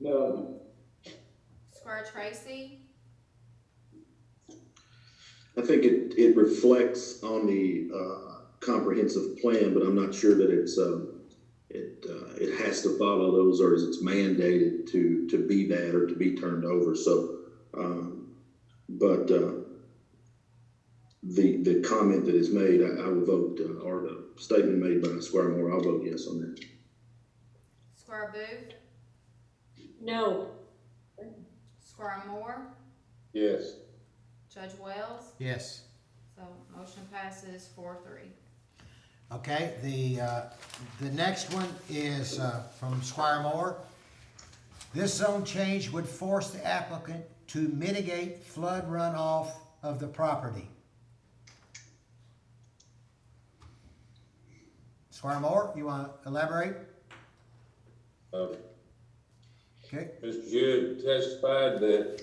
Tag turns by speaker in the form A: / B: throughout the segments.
A: No.
B: Squire Tracy,
C: I think it, it reflects on the, uh, comprehensive plan, but I'm not sure that it's, um, it, uh, it has to follow those or is it's mandated to, to be that or to be turned over, so, um, but, uh, the, the comment that is made, I, I would vote, uh, or the statement made by Squire Moore, I'll vote yes on that.
B: Squire Booth,
D: No.
B: Squire Moore,
A: Yes.
B: Judge Wells,
E: Yes.
B: so motion passes four three.
E: Okay, the, uh, the next one is, uh, from Squire Moore. This zone change would force the applicant to mitigate flood runoff of the property. Squire Moore, you wanna elaborate?
A: Uh,
E: Okay,
A: Mr. Judd testified that,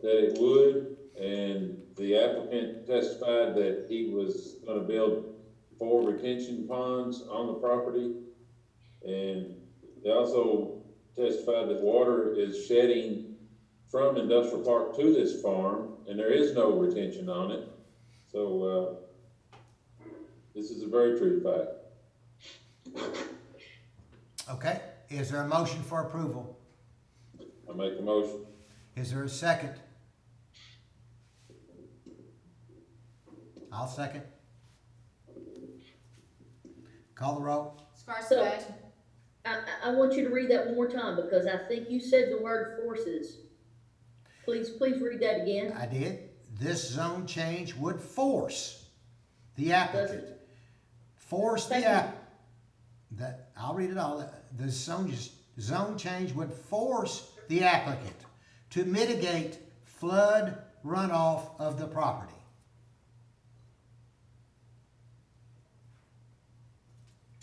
A: that it would, and the applicant testified that he was gonna build four retention ponds on the property. And they also testified that water is shedding from industrial park to this farm, and there is no retention on it. So, uh, this is a very true fact.
E: okay, is there a motion for approval?
A: I make the motion.
E: Is there a second? I'll second. Call the roll.
B: Squire
D: So-
B: Sebastian,
D: I, I- I want you to read that one more time because I think you said the word forces. Please, please read that again.
E: I did. This zone change would force the applicant,
D: Doesn't-
E: force the
D: Thank you.
E: app. That, I'll read it all. The zone, just- zone change would force the applicant to mitigate flood runoff of the property.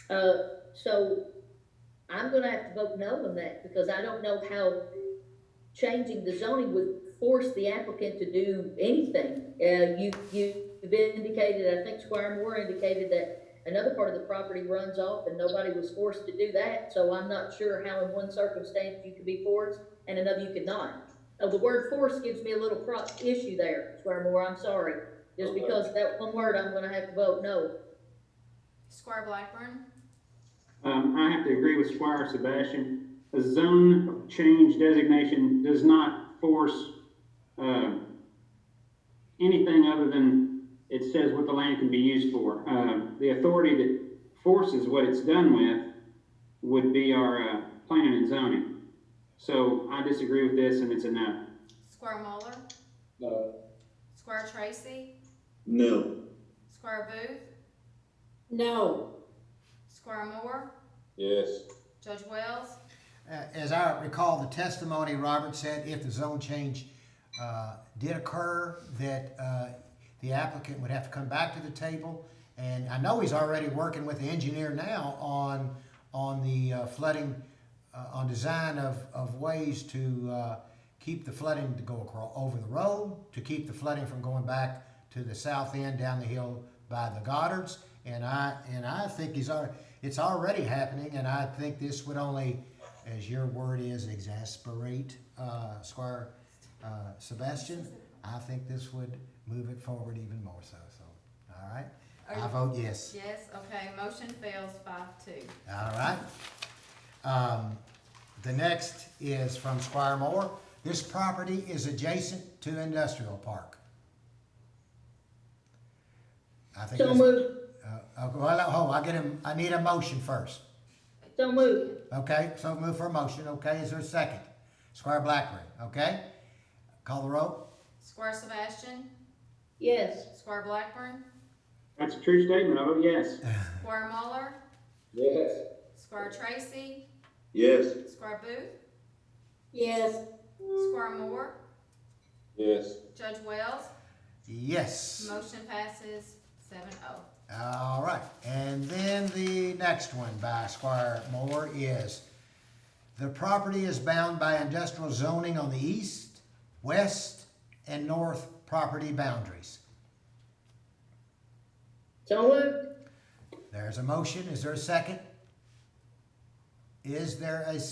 D: Uh, so I'm gonna have to vote no on that because I don't know how changing the zoning would force the applicant to do anything. Uh, you, you've indicated, I think Squire Moore indicated that another part of the property runs off and nobody was forced to do that. So I'm not sure how in one circumstance you could be forced and another you could not. Oh, the word force gives me a little pro, issue there, Squire Moore, I'm sorry. Just
A: Okay.
D: because that one word, I'm gonna have to vote no.
B: Squire Blackburn,
F: Um, I have to agree with Squire Sebastian. A zone of change designation does not force, uh, anything other than it says what the land can be used for. Uh, the authority that forces what it's done with would be our, uh, planning and zoning. So I disagree with this and it's a no.
B: Squire Muller,
A: No.
B: Squire Tracy,
C: No.
B: Squire Booth,
D: No.
B: Squire Moore,
A: Yes.
B: Judge Wells,
E: Uh, As I recall, the testimony, Robert said if the zone change uh, did occur, that uh, the applicant would have to come back to the table. And I know he's already working with the engineer now on, on the uh, flooding, uh, on design of, of ways to uh, keep the flooding to go across, over the road, to keep the flooding from going back to the south end down the hill by the Goddards. And I, and I think he's, al- it's already happening, and I think this would only, as your word is, exasperate uh, Squire uh, Sebastian. I think this would move it forward even more so. So, all right. I
B: Are-
E: vote yes.
B: yes, okay, motion fails five two.
E: All right. Um, the next is from Squire Moore. This property is adjacent to industrial park. I think.
D: So
E: this-
D: moved.
E: Uh, uh, well, hold, I get him, I need a motion first.
D: So moved.
E: Okay, so move for a motion, okay, is there a second? Squire Blackburn, okay? Call the roll?
B: Squire Sebastian,
D: Yes.
B: Squire Blackburn,
F: That's a true statement. I vote yes.
B: Squire Muller,
A: Yes.
B: Squire Tracy,
C: Yes.
B: Squire Booth,
D: Yes.
B: Squire Moore,
A: Yes.
B: Judge Wells,
E: Yes.
B: motion passes seven oh.
E: All right, and then the next one by Squire Moore is, the property is bound by industrial zoning on the east, west, and north property boundaries.
D: So moved.
E: There's a motion, is there a second? Is there a